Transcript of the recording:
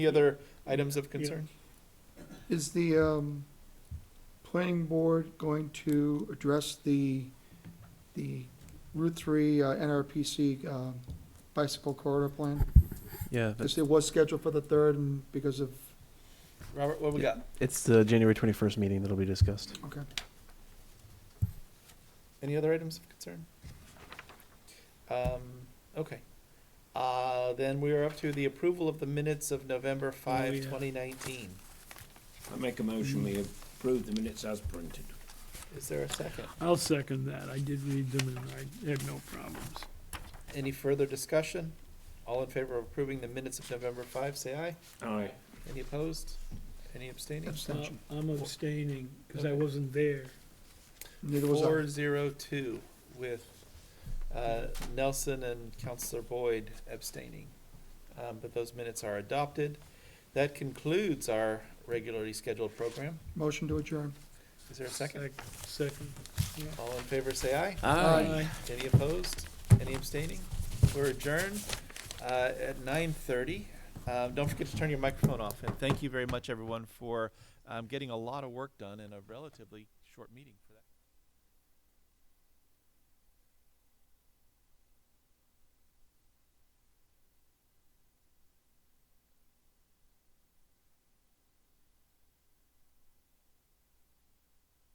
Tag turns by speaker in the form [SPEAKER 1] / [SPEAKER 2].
[SPEAKER 1] Any other items of concern?
[SPEAKER 2] Is the um, planning board going to address the, the Route 3 uh, NRPC um, bicycle corridor plan?
[SPEAKER 3] Yeah, but
[SPEAKER 2] Because it was scheduled for the 3rd and because of,
[SPEAKER 1] Robert, what we got?
[SPEAKER 3] it's the January 21st meeting that'll be discussed.
[SPEAKER 2] okay.
[SPEAKER 1] Any other items of concern? Um, okay. Uh, then we are up to the approval of the minutes of November
[SPEAKER 4] Oh,
[SPEAKER 1] five,
[SPEAKER 4] yeah.
[SPEAKER 1] twenty nineteen.
[SPEAKER 5] I make a motion, we approve the minutes as printed.
[SPEAKER 1] Is there a second?
[SPEAKER 4] I'll second that. I did read them and I had no problems.
[SPEAKER 1] Any further discussion? All in favor of approving the minutes of November five, say aye.
[SPEAKER 5] Aye.
[SPEAKER 1] Any opposed? Any abstaining?
[SPEAKER 2] Abstention.
[SPEAKER 4] Uh, I'm abstaining because I wasn't there.
[SPEAKER 2] Neither was
[SPEAKER 1] Four
[SPEAKER 2] I.
[SPEAKER 1] zero two with, uh, Nelson and Counselor Boyd abstaining. Um, but those minutes are adopted. That concludes our regularly scheduled program.
[SPEAKER 2] Motion to adjourn.
[SPEAKER 1] Is there a second?
[SPEAKER 4] Sec- Second.
[SPEAKER 1] All in favor, say aye.
[SPEAKER 2] Aye.
[SPEAKER 1] Any opposed? Any abstaining? We're adjourned uh, at nine thirty. Um, Don't forget to turn your microphone off, and thank you very much, everyone, for um, getting a lot of work done in a relatively short meeting. for-